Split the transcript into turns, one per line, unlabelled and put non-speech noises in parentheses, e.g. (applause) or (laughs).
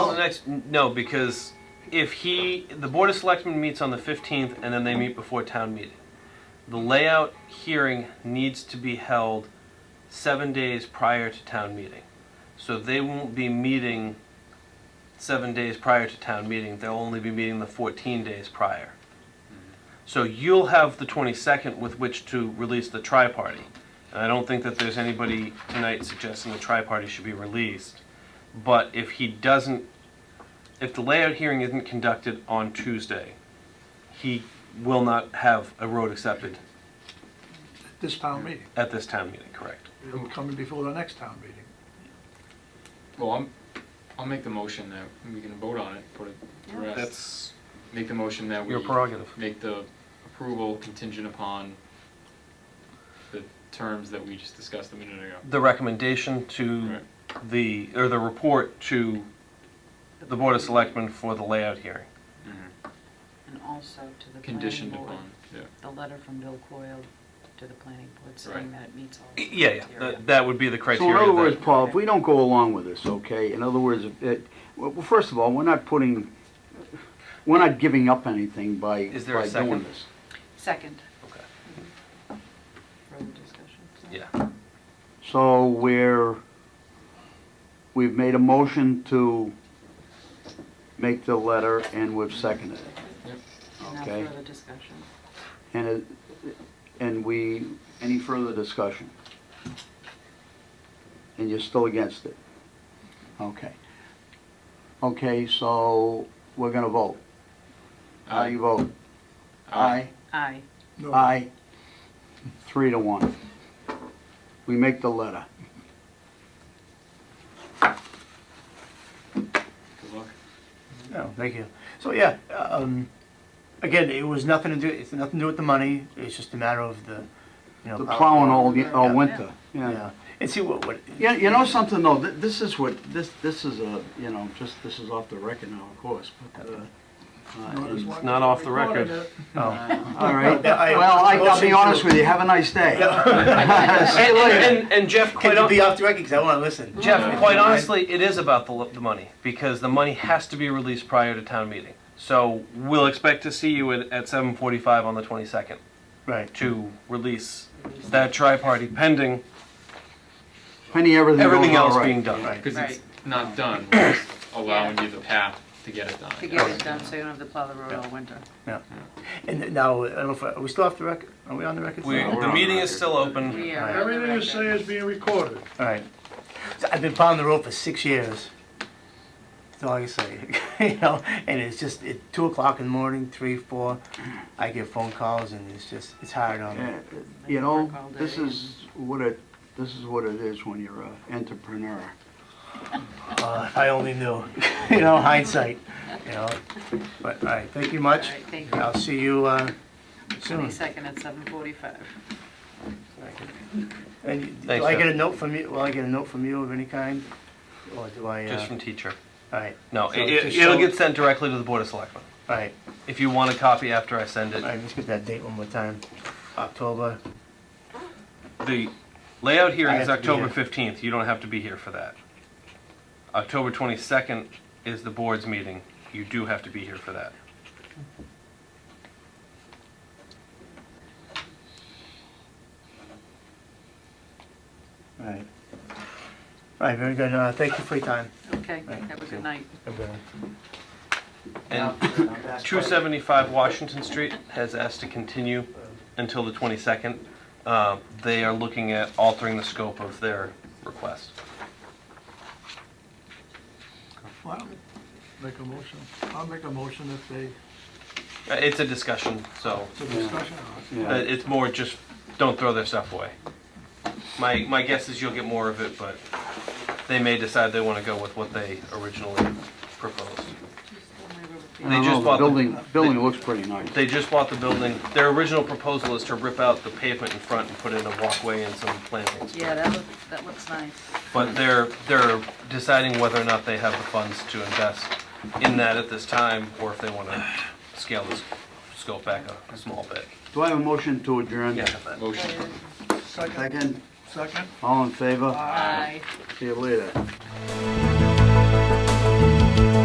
next? No, because if he, the board of selectmen meets on the fifteenth, and then they meet before town meeting. The layout hearing needs to be held seven days prior to town meeting. So they won't be meeting seven days prior to town meeting, they'll only be meeting the fourteen days prior. So you'll have the twenty-second with which to release the tri-party. And I don't think that there's anybody tonight suggesting the tri-party should be released. But if he doesn't, if the layout hearing isn't conducted on Tuesday, he will not have a road accepted
this town meeting.
at this town meeting, correct?
It'll come before the next town meeting.
Well, I'm, I'll make the motion that we can vote on it, put it to rest.
That's
Make the motion that we
your prerogative.
make the approval contingent upon the terms that we just discussed a minute ago.
The recommendation to
Right.
the, or the report to the Board of Selectmen for the layout hearing.
And also to the Mm-hmm. planning
Conditioned
board,
upon, yeah.
the letter from Bill Coyle to the planning board saying
Right.
that it meets all the
Yeah, yeah,
criteria.
that, that would be the
So in
criteria.
other words,
that-
Paul, if we don't go along with this, okay, in other words, if it, well, well, first of all, we're not putting, we're not giving up anything by,
Is there a
by doing
second?
this.
Second,
Okay,
further discussion. so.
Yeah,
So we're, we've made a motion to make the letter and we've seconded it.
And now
Okay.
further discussion.
And it, and we, any further discussion? And you're still against it? Okay. Okay, so we're gonna vote. How do you vote? Aye.
Aye,
No,
Aye. Three to one. We make the letter.
Good
(laughs)
luck.
No, thank you. So yeah, um, again, it was nothing to do. It's nothing to do with the money. It's just a matter of the, you know,
The
power-
plowing all, the- all winter, yeah.
Yeah, and see what what.
Yeah, you know something though, th- this is what, this, this is a, you know, just, this is off the record now, of course, but, uh, uh,
not as
and-
long
not
as we're
off the
recording
record.
it.
Oh.
all right,
Yeah, I-
well, I- I'll be
Motion
honest
to-
with you, have a nice day. (laughs) See you
And,
later.
and, and Jeff,
Can
quite,
you
hon-
be off the record? Because I want to listen.
Jeff, quite honestly, it is about the, lo- the money, because the money has to be released prior to town meeting. So we'll expect to see you at, at seven forty-five on the twenty-second
Right.
to release that tri-party pending
Penny, everything
everything
goes all
else being
right.
done.
Right.
Because it's
Right.
not done, we're just allowing you the path to get it done. I
to get
guess.
it done so you don't have to plow the road all winter.
And now I don't know if are we still off the record. Are we on the record?
We,
still?
the meeting is still open.
We are on the
Everything you say
record.
is being recorded.
All right. So I've been plowing the road for six years. That's all I can say. (laughs) you know, and it's just at two o'clock in the morning, three, four. I get phone calls, and it's just it's hard on me.
Yeah, You know, this is what it, this is what it is when you're an entrepreneur.
Uh, if I
(laughs)
only knew, you know, hindsight, you know. But all right, thank you much.
All right, thank you.
I'll see you uh, soon.
Twenty-second at seven forty-five.
And you- do
Thanks,
I
Jeff.
get a note from you? Will I get a note from you of any kind, or do I? Uh,
Just from teacher.
all right,
No,
So
it,
just
it- it'll
show-
get sent directly to the Board of Selectmen.
all right,
If you want a copy after I send
all
it,
right. Let's get that date one more time. October.
The layout
I
hearing
have
is
to be
October
here.
fifteenth, you don't have to be here for that. October twenty-second is the board's meeting, you do have to be here for that.
All right. All right. Very good. Uh, thank you for your time.
Okay,
Right.
have a good night.
Have a good one.
And two seventy-five Washington Street has asked to continue until the twenty-second. Uh, they are looking at altering the scope of their request.
Well, make a motion. I'll make a motion if they,
Uh, It's a discussion, so,
it's a discussion.
uh,
Yeah.
it's more just, don't throw their stuff away. My, my guess is you'll get more of it, but they may decide they wanna go with what they originally proposed.
I
They
don't
just
know, the
bought the-
Building, building looks pretty nice.
They just bought the building. Their original proposal is to rip out the pavement in front and put in a walkway and some plantings.
Yeah, that looks, that looks nice.
But they're, they're deciding whether or not they have the funds to invest in that at this time, or if they want to scale this scope back a, a small bit.
Do I have a motion to adjourn?
Yeah.
Motion.
Second,
Second,
second?
all in favor?
Aye.
See you later.